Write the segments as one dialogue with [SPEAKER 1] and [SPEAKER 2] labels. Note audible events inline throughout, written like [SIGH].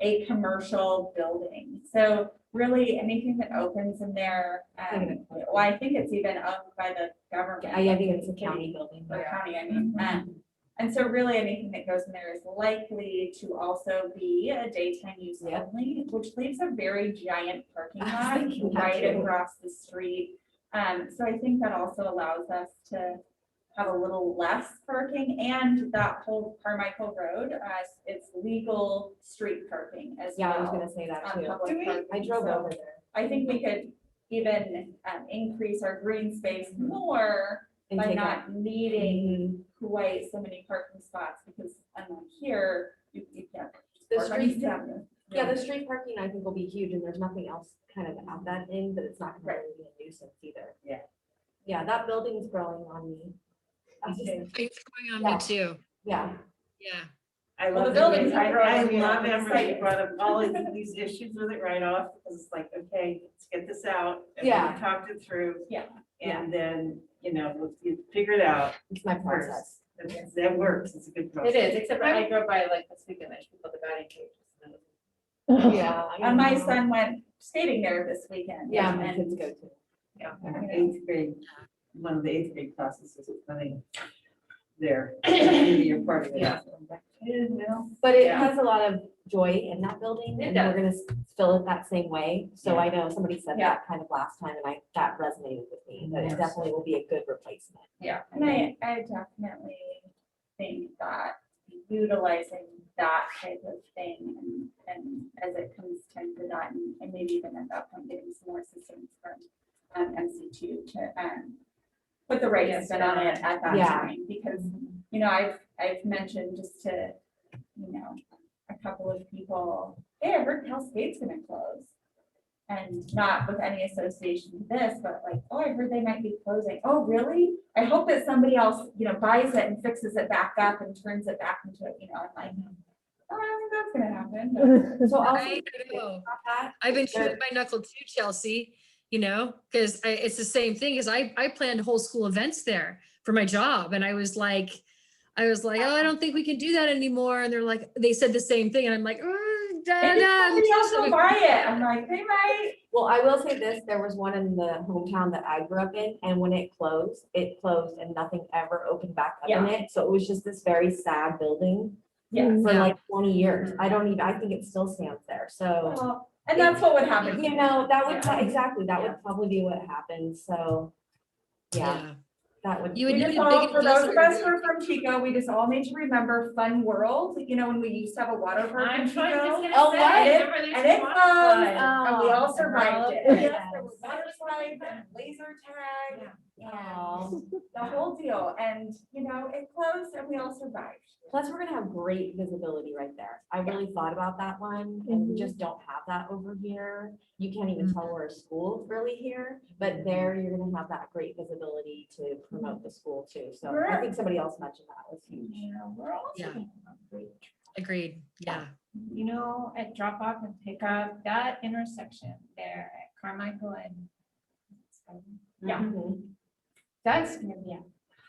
[SPEAKER 1] a commercial building. So really, anything that opens in there, um, well, I think it's even owned by the government.
[SPEAKER 2] Hmm. I, I think it's a county Mm-hmm. building.
[SPEAKER 1] Or county, I mean, um, and so really anything that goes in there is likely to also be a daytime use
[SPEAKER 2] Yeah.
[SPEAKER 1] only, which leaves a very giant parking
[SPEAKER 2] [LAUGHS] I was thinking
[SPEAKER 1] lot
[SPEAKER 2] that
[SPEAKER 1] right
[SPEAKER 2] too.
[SPEAKER 1] across the street. Um, so I think that also allows us to have a little less parking and that whole Carmichael Road, uh, it's legal street parking as
[SPEAKER 2] Yeah, I was
[SPEAKER 1] well.
[SPEAKER 2] gonna say that
[SPEAKER 1] on
[SPEAKER 2] too.
[SPEAKER 1] public parking.
[SPEAKER 2] I drove
[SPEAKER 1] So-
[SPEAKER 2] over there.
[SPEAKER 1] I think we could even um, increase our green space more
[SPEAKER 2] and
[SPEAKER 1] by
[SPEAKER 2] take out-
[SPEAKER 1] not needing quite so many parking spots because unlike here, you, you can't.
[SPEAKER 2] The
[SPEAKER 1] park on
[SPEAKER 2] street,
[SPEAKER 1] East Avenue.
[SPEAKER 2] yeah, the street parking I think will be huge and there's nothing else kind of at that end, but it's not gonna
[SPEAKER 1] Right.
[SPEAKER 2] really be a nuisance either.
[SPEAKER 3] Yeah.
[SPEAKER 2] Yeah, that building's growing on me. I just-
[SPEAKER 4] It's going on
[SPEAKER 2] Yeah.
[SPEAKER 4] me too.
[SPEAKER 2] Yeah,
[SPEAKER 4] Yeah.
[SPEAKER 3] I
[SPEAKER 1] Well,
[SPEAKER 3] love
[SPEAKER 1] the
[SPEAKER 3] that
[SPEAKER 1] buildings
[SPEAKER 3] you-
[SPEAKER 1] are growing
[SPEAKER 3] I
[SPEAKER 1] here on
[SPEAKER 3] love
[SPEAKER 1] the
[SPEAKER 3] Amber, you
[SPEAKER 1] site.
[SPEAKER 3] brought up all of these issues with it right off, because it's like, okay, let's get this out. and we
[SPEAKER 2] Yeah.
[SPEAKER 3] Talked it through.
[SPEAKER 1] Yeah.
[SPEAKER 3] And then, you know, let's get- figure it out
[SPEAKER 2] it's my
[SPEAKER 3] first.
[SPEAKER 2] process.
[SPEAKER 3] That- That works, it's a good process.
[SPEAKER 5] It is, except when I drove by like this weekend, there's people that got engaged. and it
[SPEAKER 2] Yeah. I
[SPEAKER 1] And my
[SPEAKER 2] know.
[SPEAKER 1] son went skating there this weekend.
[SPEAKER 2] Yeah, my kids
[SPEAKER 1] And
[SPEAKER 2] go too.
[SPEAKER 3] Yeah, Uh, Eighth grade, one of the eighth grade classes is running there. Maybe You're part of it.
[SPEAKER 5] Yeah.
[SPEAKER 3] I'm like, eh, well,
[SPEAKER 2] But it
[SPEAKER 5] Yeah.
[SPEAKER 2] has a lot of joy in that building and
[SPEAKER 5] It
[SPEAKER 2] we're gonna s- fill it that same way. So
[SPEAKER 3] Yeah.
[SPEAKER 2] I know somebody said
[SPEAKER 5] Yeah.
[SPEAKER 2] that kind of last time and I, that resonated with me, that it
[SPEAKER 3] Yes.
[SPEAKER 2] definitely will be a good replacement.
[SPEAKER 1] and I, I definitely think that utilizing that type of thing and, and as it comes time for that and, and maybe even at that point getting some more assistance from um, MC two to, um, put the right
[SPEAKER 5] Yes,
[SPEAKER 1] spin on it at that
[SPEAKER 2] Yeah. Mm-hmm.
[SPEAKER 1] time because you know, I've, I've mentioned just to, you know, a couple of people, hey, I heard Cal State's gonna close. And not with any association to this, but like, oh, I heard they might be closing. Oh, really? I hope that somebody else, you know, buys it and fixes it back up and turns it back into, it. you know, I'm like, oh, I don't think that's gonna happen. but-
[SPEAKER 2] So I'll
[SPEAKER 4] I
[SPEAKER 2] see
[SPEAKER 4] know.
[SPEAKER 2] about that.
[SPEAKER 4] I've been
[SPEAKER 2] Sure.
[SPEAKER 4] chewing my knuckle too, Chelsea, you know, because I, it's the same thing, because I, I planned whole school events there for my job, and I was like, I was like, oh, I don't think we can do that anymore, and they're like, they said the same thing, and I'm like, "Mm, da, da,
[SPEAKER 1] Maybe
[SPEAKER 4] da,
[SPEAKER 2] um,
[SPEAKER 4] I'm
[SPEAKER 1] somebody else
[SPEAKER 4] so
[SPEAKER 1] will buy it. I'm like, they might.
[SPEAKER 2] Well, I will say this, there was one in the hometown that I grew up in, and when it closed, it closed and nothing ever opened back up in it. So it was just this very sad building
[SPEAKER 1] Yes.
[SPEAKER 2] for
[SPEAKER 4] Yeah.
[SPEAKER 2] like twenty years. I don't even, I think it still stands there, so.
[SPEAKER 1] Well, And that's what would happen.
[SPEAKER 2] You know, that would,
[SPEAKER 1] Yeah.
[SPEAKER 2] exactly, that
[SPEAKER 1] Yeah.
[SPEAKER 2] would probably be what happened, so, yeah, that would.
[SPEAKER 4] You
[SPEAKER 1] We
[SPEAKER 4] would need
[SPEAKER 1] just
[SPEAKER 4] a
[SPEAKER 1] all,
[SPEAKER 4] big
[SPEAKER 1] for those of us who
[SPEAKER 4] investor.
[SPEAKER 1] are from Chico, we just all need to remember Fun World, you know, when we used to have a water
[SPEAKER 5] was-
[SPEAKER 1] park in
[SPEAKER 5] I'm trying to
[SPEAKER 1] Chico.
[SPEAKER 5] just get
[SPEAKER 2] Oh,
[SPEAKER 5] a
[SPEAKER 2] what?
[SPEAKER 5] sense. Remember there's
[SPEAKER 1] And it
[SPEAKER 5] a
[SPEAKER 1] closed,
[SPEAKER 5] waterfall.
[SPEAKER 1] and we all
[SPEAKER 2] Oh,
[SPEAKER 1] survived it. [LAUGHS]
[SPEAKER 2] yes.
[SPEAKER 1] Yes, there was water slides, and laser tag, and
[SPEAKER 2] Aw.
[SPEAKER 1] the whole deal, and, you know, it closed and we all survived.
[SPEAKER 2] Plus, we're gonna have great visibility right there. I really thought about that one, and we just don't have that over here. You can't even tell where a school is really here, but there you're gonna have that great visibility to promote the school too. So I
[SPEAKER 1] Sure.
[SPEAKER 2] think somebody else mentioned that was huge.
[SPEAKER 5] You know, we're all-
[SPEAKER 4] Yeah. Agreed, yeah.
[SPEAKER 5] You know, at drop off and pick up, that intersection there at Carmichael and Yeah.
[SPEAKER 2] Mhm.
[SPEAKER 5] that's gonna be a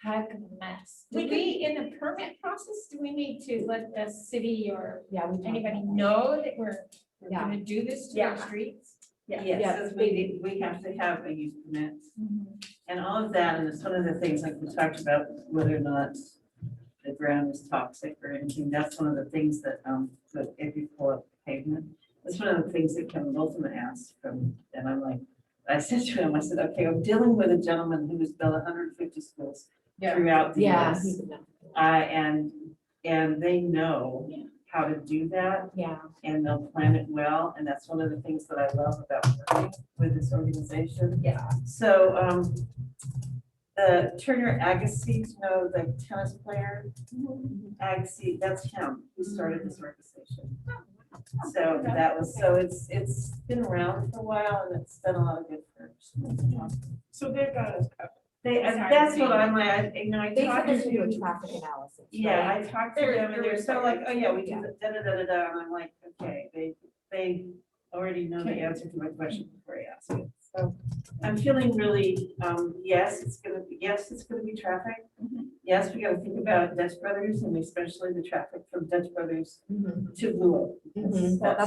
[SPEAKER 5] heck of a mess. Do
[SPEAKER 1] We
[SPEAKER 5] we, in the permit process, do we need to let the city or
[SPEAKER 2] Yeah. we talked
[SPEAKER 5] anybody
[SPEAKER 2] about that.
[SPEAKER 5] know that we're, we're
[SPEAKER 2] Yeah.
[SPEAKER 5] gonna do this to our
[SPEAKER 1] Yeah.
[SPEAKER 5] streets?
[SPEAKER 1] Yeah.
[SPEAKER 2] Yeah,
[SPEAKER 3] Yes, because we, need- we have to have a use permit and all of that, and it's one of the things like we talked about, whether or not the ground is toxic or anything, that's one of the things that, um, that if you pull up pavement, that's one of the things that Kevin Boltman asked from, and I'm like, I said to him, I said, okay, I'm dealing with a gentleman who has built hundred and fifty schools
[SPEAKER 5] Yeah.
[SPEAKER 3] throughout the
[SPEAKER 2] Yeah.
[SPEAKER 3] US.
[SPEAKER 2] he would know.
[SPEAKER 3] Uh, and, and they know
[SPEAKER 5] Yeah.
[SPEAKER 3] how to do that
[SPEAKER 2] Yeah,
[SPEAKER 3] and they'll plan it well, and that's one of the things that I love about working with this organization.
[SPEAKER 1] Yeah.
[SPEAKER 3] So, um, the Turner Agassiz, you know, the tennis player, Agassiz, that's him, who started this organization. So that was, so it's, it's been around for a while and it's done a lot of good for us.
[SPEAKER 6] So they've got us covered.
[SPEAKER 3] They, and that's what I'm like, I- you know, I
[SPEAKER 2] they said
[SPEAKER 3] talked
[SPEAKER 2] there's gonna be a
[SPEAKER 3] to,
[SPEAKER 2] traffic analysis.
[SPEAKER 3] yeah,
[SPEAKER 2] right?
[SPEAKER 3] I talked to
[SPEAKER 1] There-
[SPEAKER 3] them and
[SPEAKER 1] there
[SPEAKER 3] they're
[SPEAKER 1] was
[SPEAKER 3] so
[SPEAKER 1] that.
[SPEAKER 3] like, oh yeah, we
[SPEAKER 2] Yeah.
[SPEAKER 3] do the da da da da da, and I'm like, okay, they, they already know the answer to my question before I ask it. So I'm feeling really, um, yes, it's gonna, be yes, it's gonna be traffic.
[SPEAKER 1] Mhm.
[SPEAKER 3] Yes, we gotta think about Dutch Brothers and especially the traffic from Dutch Brothers
[SPEAKER 2] Mhm.
[SPEAKER 3] to Blue Oak. because
[SPEAKER 2] Mhm. Well,
[SPEAKER 3] that's-